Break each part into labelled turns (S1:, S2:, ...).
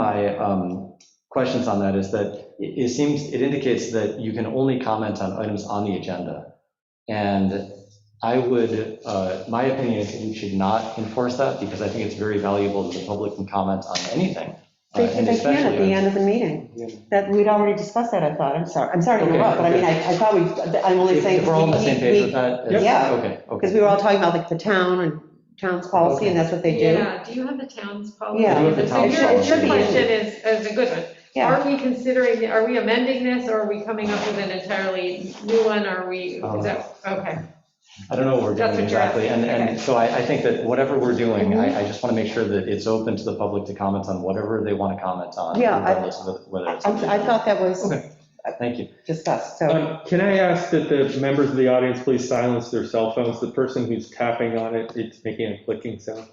S1: my um, questions on that is that it it seems, it indicates that you can only comment on items on the agenda. And I would, uh, my opinion is that we should not enforce that because I think it's very valuable that the public can comment on anything. uh,
S2: They
S1: and
S2: they can at
S1: especially
S2: the
S1: on-
S2: end of the meeting. That, we'd already discussed that, I thought, I'm sorry, I'm sorry to
S1: Okay,
S2: interrupt, but I mean,
S1: okay.
S2: I I thought we, I'm only
S1: If
S2: saying.
S1: if we're all on the same page with that. it's-
S2: Yeah.
S1: Okay, okay.
S2: Because we were all talking about like the town and town's policy, and that's what they do.
S3: Yeah, do you have the town's policy?
S2: Yeah. I
S1: do have the
S3: So
S1: town's
S3: your-
S1: policy.
S3: Your question is, is a good one.
S2: Yeah,
S3: Are we considering, are we amending this, or are we coming up with an entirely new one, are we,
S2: Oh.
S3: is that, okay.
S1: I don't know what we're
S3: That's
S1: doing
S3: what you're
S1: exactly. And,
S3: okay.
S1: and so I, I think that whatever we're doing,
S2: Mm-hmm.
S1: I, I just want to make sure that it's open to the public to comment on whatever they want to comment on.
S2: Yeah, I-
S1: Regardless of whether
S2: I
S1: it's.
S2: I thought that was
S1: Okay. Thank you.
S2: discussed, so,
S4: Um, Can I ask that the members of the audience please silence their cell phones? The person who's tapping on it, it's making a clicking sound.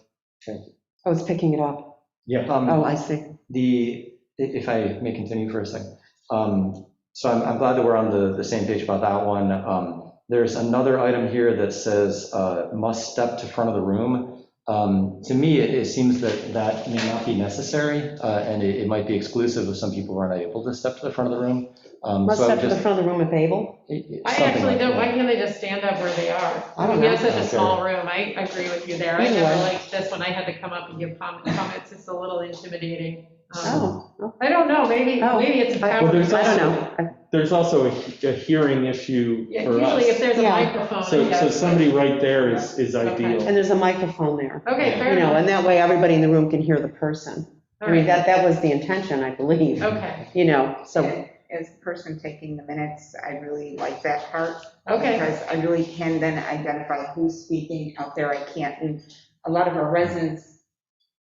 S2: I was picking it up.
S4: Yeah.
S1: Um,
S2: Oh, I see.
S1: The, if I may continue for a second, um, so I'm, I'm glad that we're on the, the same page about that one. Um, There's another item here that says, uh, must step to front of the room. Um, To me, it, it seems that that may not be necessary, uh, and it, it might be exclusive of some people who are not able to step to the front of the room. Um,
S2: Must
S1: so I would
S2: step to the
S1: just-
S2: front of the room at Babel.
S1: it- it-
S3: I
S1: something
S3: actually
S1: like
S3: don't,
S1: that.
S3: why can't they just stand up where they are?
S2: I don't
S3: We
S2: know.
S3: have such a
S1: Okay.
S3: small room, I agree with you there, I
S2: Anyway.
S3: never liked this one, I had to come up and give com- comments, it's a little intimidating. Um,
S2: Oh, okay.
S3: I don't know, maybe,
S2: Oh.
S3: maybe it's a
S2: Well,
S3: power.
S4: there's
S2: I don't
S3: question.
S2: know. I-
S4: There's also a a hearing issue
S3: Yeah,
S4: for
S3: Usually if
S4: us.
S3: there's a
S2: Yeah.
S3: microphone.
S4: So, so
S3: yes.
S4: somebody right there is, is ideal.
S2: And there's a microphone there,
S3: Okay, fair
S2: you know,
S3: enough.
S2: and that way everybody in the room can hear the person. I
S3: All
S2: mean,
S3: right.
S2: that, that was the intention, I believe,
S3: Okay,
S2: you know, so,
S5: And As the person taking the minutes, I really like that part.
S3: okay,
S5: Because I really can then identify who's speaking out there, I can't, and a lot of our residents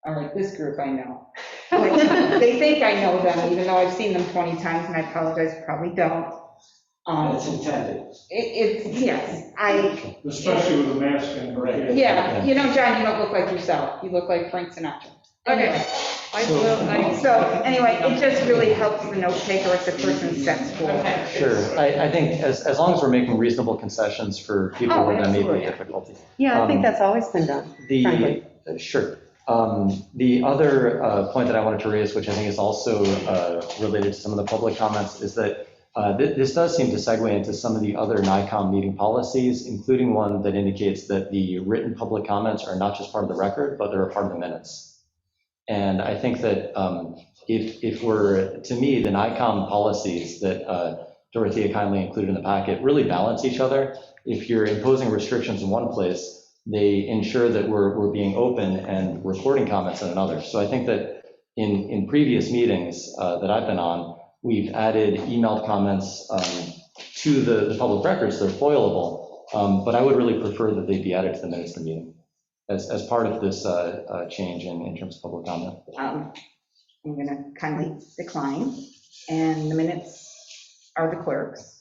S5: are like, this group I know. Like, They think I know them, even though I've seen them 20 times, and I apologize, probably don't. Um,
S6: That's intended,
S5: it- It's, yes, I,
S7: Especially with a mask and.
S6: Right.
S5: yeah, you know, John, you don't look like yourself, you look like Frank Sinatra.
S3: okay. I will, I-
S5: So anyway, it just really helps the note taker if the person steps forward.
S3: Okay.
S1: Sure, I, I think as, as long as we're making reasonable concessions for people
S5: Oh,
S1: who are having
S5: absolutely.
S1: difficulty.
S2: yeah, I think
S1: Um,
S2: that's always been done.
S1: The, uh,
S2: Frankly.
S1: sure. Um, The other uh, point that I wanted to raise, which I think is also uh, related to some of the public comments, is that uh, thi- this does seem to segue into some of the other NICOM meeting policies, including one that indicates that the written public comments are not just part of the record, but they're a part of the minutes. And I think that um, if, if we're, to me, the NICOM policies that uh, Dorothea kindly included in the packet really balance each other. If you're imposing restrictions in one place, they ensure that we're, we're being open and recording comments in another. So I think that in, in previous meetings uh, that I've been on, we've added emailed comments um, to the, the public records, they're foilable, um, but I would really prefer that they be added to the minutes of the meeting as, as part of this uh, uh, change in, in terms of public comment.
S5: Um, I'm going to kindly decline, and the minutes are the clerk's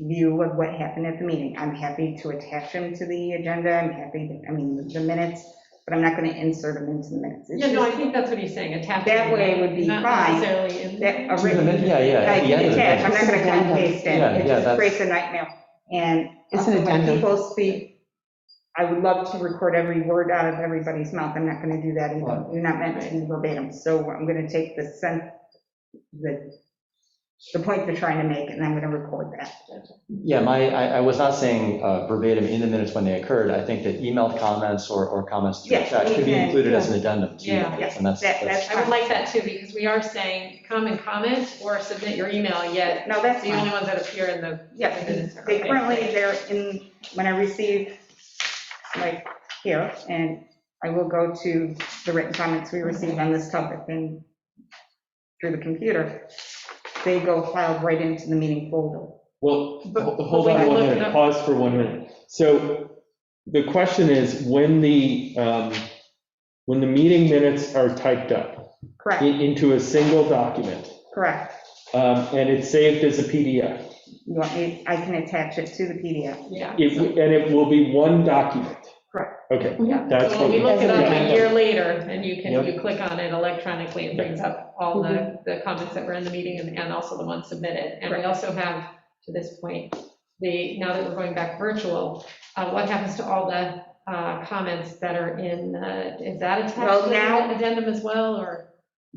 S5: view of what happened at the meeting. I'm happy to attach them to the agenda, I'm happy, to I mean, the minutes, but I'm not going to insert them into the minutes. It's
S3: Yeah, no, I
S5: just
S3: think that's what he's saying, attach.
S5: That way would be
S3: not
S5: fine.
S3: necessarily in-
S5: that uh, a
S1: To the min-
S5: written-
S1: Yeah, yeah.
S5: I
S1: at the end
S5: can
S1: of the
S5: attach, I'm
S1: minutes.
S5: not going to cut and paste it,
S1: Yeah, yeah,
S5: it just
S1: that's-
S5: creates a nightmare. And
S2: It's an
S5: also when
S2: addendum.
S5: people speak, I would love to record every word out of everybody's mouth, I'm not going to do that either.
S1: Right.
S5: You're not meant to be verbatim, so I'm going to take the sense, the, the point they're trying to make, and I'm going to record that.
S1: Yeah, my, I, I was not saying uh, verbatim in the minutes when they occurred. I think that emailed comments or, or comments through
S5: Yes,
S1: chat should be
S5: we can-
S1: included as an addendum to
S3: Yeah,
S1: minutes, and that's,
S5: that-
S1: that's,
S3: I would like that too, because we are saying, come and comment or submit your email, yet
S5: No, that's
S3: the
S5: fine.
S3: only ones that appear in the.
S5: Yeah, because they currently, they're in, when I receive, like, here, and I will go to the written comments we received on this topic and through the computer, they go filed right into the meeting folder.
S4: Well,
S3: But- but
S4: hold
S3: we
S4: on
S3: can
S4: one
S3: look it
S4: minute,
S3: up.
S4: pause for one minute. So the question is, when the, um, when the meeting minutes are typed up i-
S5: Correct,
S4: into a single document,
S5: correct.
S4: um, and it's saved as a PDF,
S5: You want me, I can attach it to the PDF.
S3: Yeah.
S4: It, w- and it will be one document?
S5: Correct.
S4: Okay,
S5: Mm-hmm.
S3: Yeah.
S4: that's
S3: So when
S4: what,
S3: we look it up a
S2: That's-
S3: year later, and you can,
S1: Yep.
S3: you click on it electronically, it brings up all the,
S5: Mm-hmm.
S3: the comments that were in the meeting and, and also the ones submitted. And we
S5: Correct.
S3: also have, to this point, the, now that we're going back virtual, uh, what happens to all the, uh, comments that are in, uh, is that attached
S5: Well,
S3: to
S5: now-
S3: the addendum as well, or?